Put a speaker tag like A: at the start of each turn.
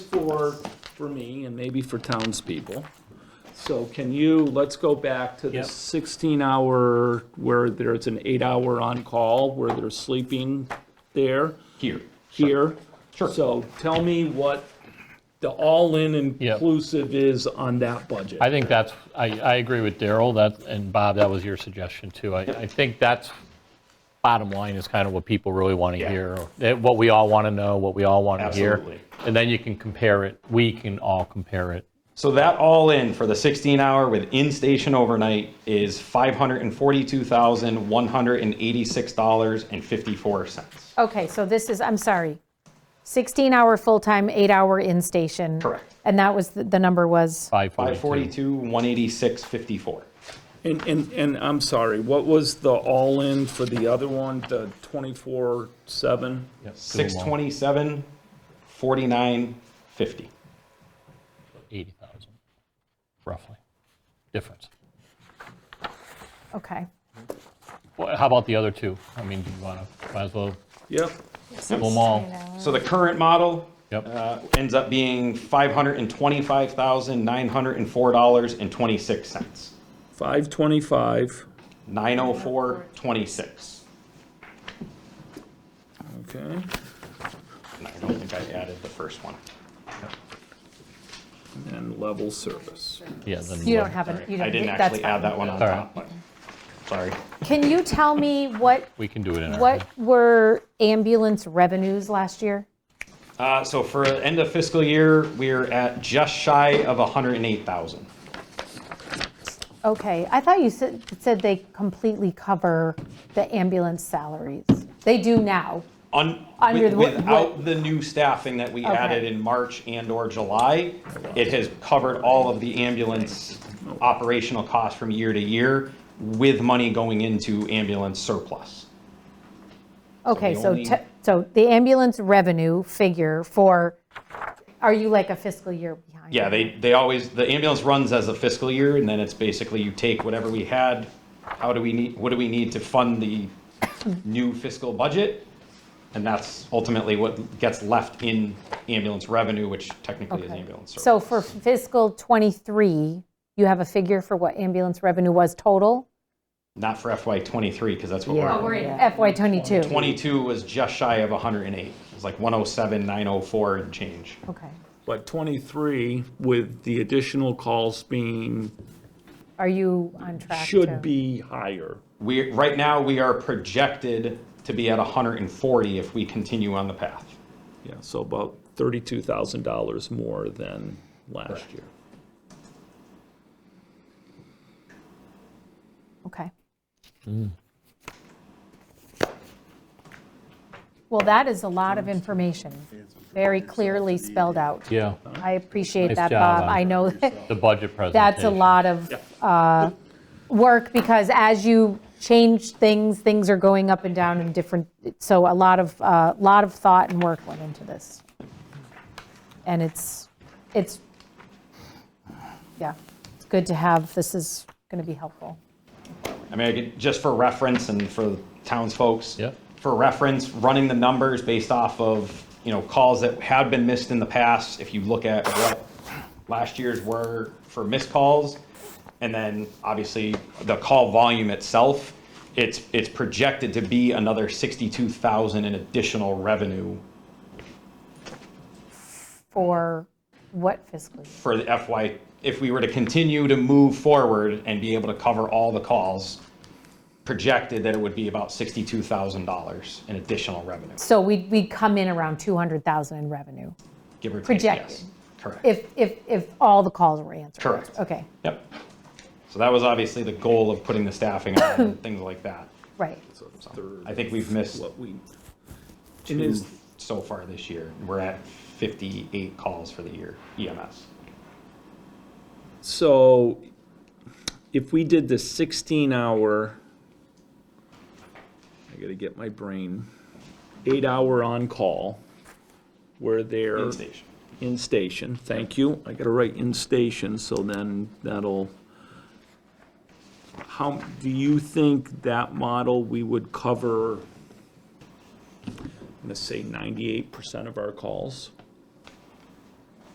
A: for, for me and maybe for townspeople. So can you, let's go back to the
B: Yep.
A: sixteen hour, where there's an eight hour on-call, where they're sleeping there,
B: Here.
A: here.
B: Sure.
A: So tell me what the all-in
B: Yeah.
A: inclusive is on that budget.
B: I think that's, I, I agree with Daryl, that, and Bob, that was your suggestion too. I, I think that's, bottom line is kind of what people really want to
C: Yeah.
B: hear, eh, what we all want to know, what we all want to hear.
C: Absolutely.
B: And then you can compare it, we can all compare it.
C: So that all in for the 16 hour with in-station overnight is $542,186.54.
D: Okay, so this is, I'm sorry, 16-hour full-time, eight-hour in-station.
C: Correct.
D: And that was, the the number was,
B: 542.
C: 542,186.54.
A: And, and, and I'm sorry, what was the all-in for the other one, the twenty-four, seven?
B: Yep,
C: Six twenty-seven, forty-nine, fifty.
B: 80,000, roughly, difference.
D: okay.
B: Well, How about the other two? I mean, do you want to, might as well,
A: Yep,
B: pull them all.
C: So the current model
B: Yep.
C: uh, ends up being five hundred and twenty-five thousand, nine hundred and four dollars and twenty-six cents.
A: five twenty-five,
C: Nine oh four, twenty-six.
A: okay.
C: And I don't think I added the first one.
A: And level service.
B: Yeah. then
D: You
B: we'll-
D: don't have, an. you don't.
C: I didn't
D: that's
C: actually
D: fine.
C: add that one on
B: All right.
C: top, but, sorry.
D: Can you tell me what,
B: We can do it in our.
D: what were ambulance revenues last year?
C: Uh, so for the end of fiscal year, we're at just shy of hundred and eight thousand.
D: Okay, I thought you said, said they completely cover the ambulance salaries. They do now.
C: Un,
D: Under
C: with-
D: the- what-
C: without the new staffing that we
D: Okay.
C: added in March and or July, it has covered all of the ambulance operational costs from year to year with money going into ambulance surplus.
D: Okay,
C: the
D: so,
C: only-
D: te- so the ambulance revenue figure for, are you like a fiscal year behind?
C: Yeah, they, they always, the ambulance runs as a fiscal year and then it's basically you take whatever we had, how do we need, what do we need to fund the new fiscal budget? And that's ultimately what gets left in ambulance revenue, which technically is
D: Okay.
C: ambulance surplus.
D: So for fiscal '23, you have a figure for what ambulance revenue was total?
C: Not for FY twenty-three, because that's what we're.
D: Or FY '22?
C: 22 was just shy of 108. It was like 107, 904 and change.
D: Okay.
A: But 23, with the additional calls being,
D: Are you on track? to-
A: should be higher.
C: We, right now, we are projected to be at 140 if we continue on the path.
A: Yeah, so about $32,000 more than last year.
D: Okay.
B: Mm.
D: Well, that is a lot of information, very clearly spelled out.
B: Yeah,
D: I appreciate
B: Nice
D: that,
B: job
D: Bob.
B: on
D: I know
B: the budget presentation.
D: that's a lot of uh, work because as you change things, things are going up and down and different, so a lot of, a lot of thought and work went into this. And it's, it's, yeah, it's good to have, this is going to be helpful.
C: I mean, I could- just for reference and for townsfolks.
B: Yeah.
C: For reference, running the numbers based off of, you know, calls that had been missed in the past, if you look at what last year's were for missed calls, and then obviously the call volume itself, it's, it's projected to be another 62,000 in additional revenue
D: For what fiscal year?
C: for the FY, if we were to continue to move forward and be able to cover all the calls, projected that it would be about $62,000 in additional revenue,
D: So we'd, we'd come in around 200,000 in revenue,
C: give or take, yes.
D: Projected.
C: Correct,
D: if, if, if all the calls were answered.
C: Correct.
D: Okay,
C: yep. So that was obviously the goal of putting the staffing on and things like that.
D: right.
A: So it's third
C: I think we've missed
A: what we, it
C: two
A: is,
C: so far this year. We're at 58 calls for the year E EMS.
A: so if we did the 16 hour, I gotta get my brain, eight hour on-call, where they're.
C: In station.
A: In station, thank you. I gotta write in station, so then that'll. How, do you think that model, we would cover, I'm gonna say ninety-eight percent of our calls?